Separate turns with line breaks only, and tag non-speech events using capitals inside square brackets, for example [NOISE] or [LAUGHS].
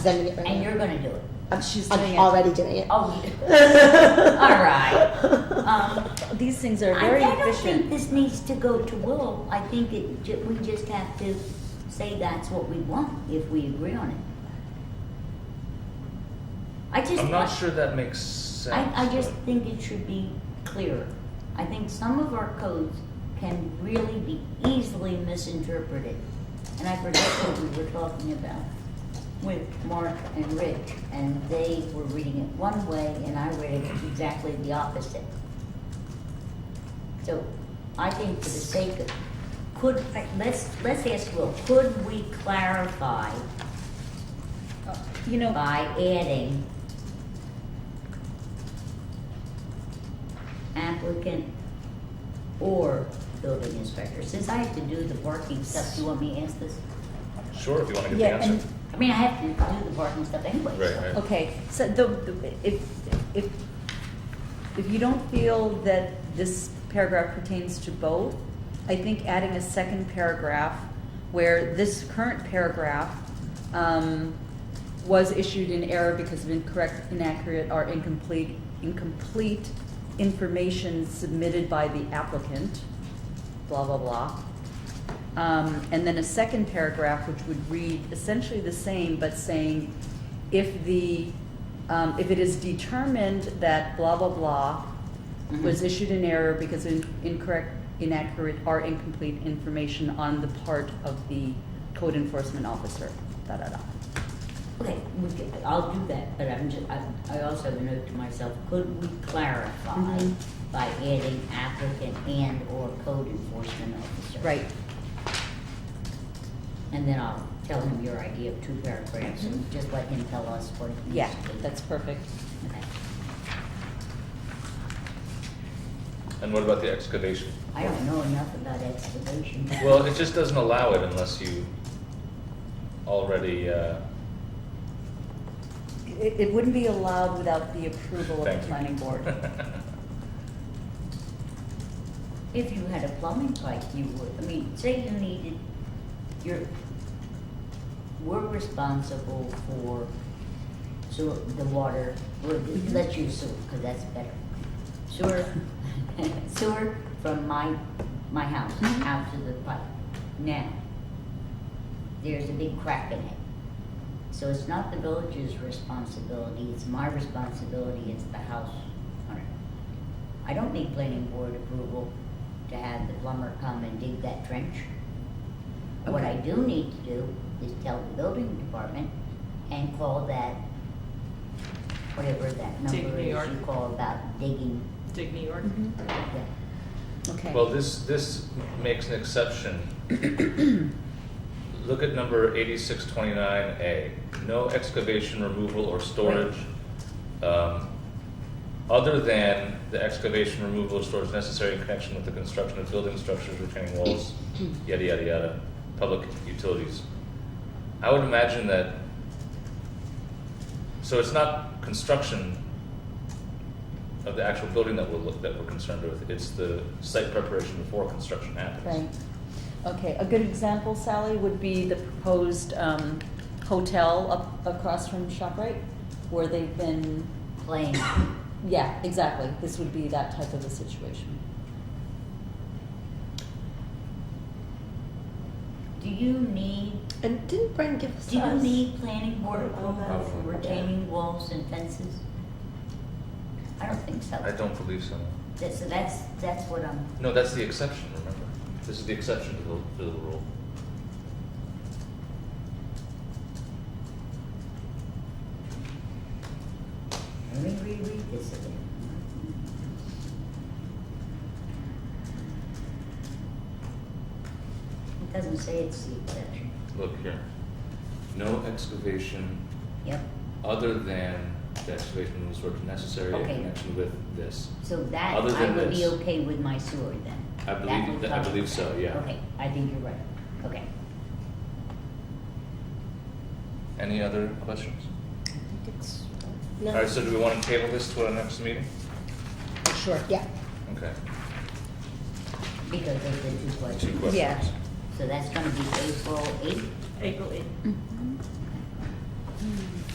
sending it right
And
now.
you're gonna do it.
I'm,
She's
I'm
doing it. [LAUGHS]
already doing it.
Oh, [LAUGHS] you-
All
right. um,
These things
I
are very
I don't think
efficient.
this needs to go to Will. I think it, ju- we just have to say that's what we want if we agree on it. I just.
I'm not sure that makes sense.
I, I just
but-
think it should be clearer. I think some of our codes can really be easily misinterpreted. And I forget what we were talking about with Mark and Rich, and they were reading it one way, and I read it exactly the opposite. So I think for the sake of, could, let's, let's ask Will, could we clarify
You know,
by adding applicant or building inspector, since I have to do the parking stuff, do you want me to ask this?
Sure, if you want to
Yeah,
get the answer.
I mean, I have to do the parking stuff anyway. so-
Right, right.
okay, so the, the- if, if, if you don't feel that this paragraph pertains to both, I think adding a second paragraph where this current paragraph, um, was issued in error because of incorrect, inaccurate, or incomplete, incomplete information submitted by the applicant, blah, blah, blah. Um, and then a second paragraph, which would read essentially the same, but saying, if the, um, if it is determined that blah, blah, blah was
Mhm.
issued in error because of incorrect, inaccurate, or incomplete information on the part of the code enforcement officer, da-da-da.
Okay, we can, I'll do that, but I'm just, I, I also have a note to myself, could we clarify
Mhm.
by adding applicant and or code enforcement officer?
Right,
And then I'll tell him your idea of two paragraphs and just let him tell us what he needs
yeah,
to do.
that's perfect.
Okay.
And what about the excavation?
I don't know enough about excavation.
Well, it just doesn't allow it unless you already, uh,
It, it wouldn't be allowed without the approval of
Thank
the
you.
planning board.
[LAUGHS]
If you had a plumbing pipe, you would, I mean, say you needed, your. we're responsible for sewer, the water, we're- let's use sewer, because that's better. Sewer, [LAUGHS] sewer from my, my house
Mhm.
out to the pipe. Now, there's a big crack in it. So it's not the village's responsibility, it's my responsibility, it's the house owner. I don't need planning board approval to have the plumber come and dig that trench. What I do need to do is tell the building department and call that, whatever that
Dig
number
New
is
York.
you call about digging.
Dig New York.
Mhm.
[LAUGHS]
that.
Okay.
well, this, this makes an exception. Look at number eighty-six twenty-nine A, no excavation, removal, or storage, um, other than the excavation, removal, or storage necessary in connection with the construction of building structures, retaining walls, yada, yada, yada, public utilities. I would imagine that, so it's not construction of the actual building that we're, loo- that we're concerned with, it's the site preparation before construction happens.
Right. Okay, a good example, Sally, would be the proposed um, hotel up across from ShopRite, where they've been,
Plain,
yeah, exactly. This would be that type of a situation.
do you need,
[LAUGHS] And didn't Brian give us
do you
us-
need planning board approval for
Probably.
retaining walls and fences? I don't think so.
I don't believe so.
That- So that's, that's what I'm,
No, that's the exception, remember? This is the exception to the, to the rule.
let me reread this again. It doesn't say it's the exception.
Look here. No excavation
Yep,
other than the excavation was sort of necessary in
Okay.
connection with this.
so that,
Other
I
than
would be
this.
okay with my sewer then.
I
That
believe-
would
that- I
cover
believe so, yeah.
Okay, I think you're right, okay.
Any other questions?
No.
All right, so do we want to table this to our next meeting?
Sure. Yeah.
Okay.
Because of the two
Two
questions.
questions.
Yeah.
So that's gonna be April eighth,
April eighth.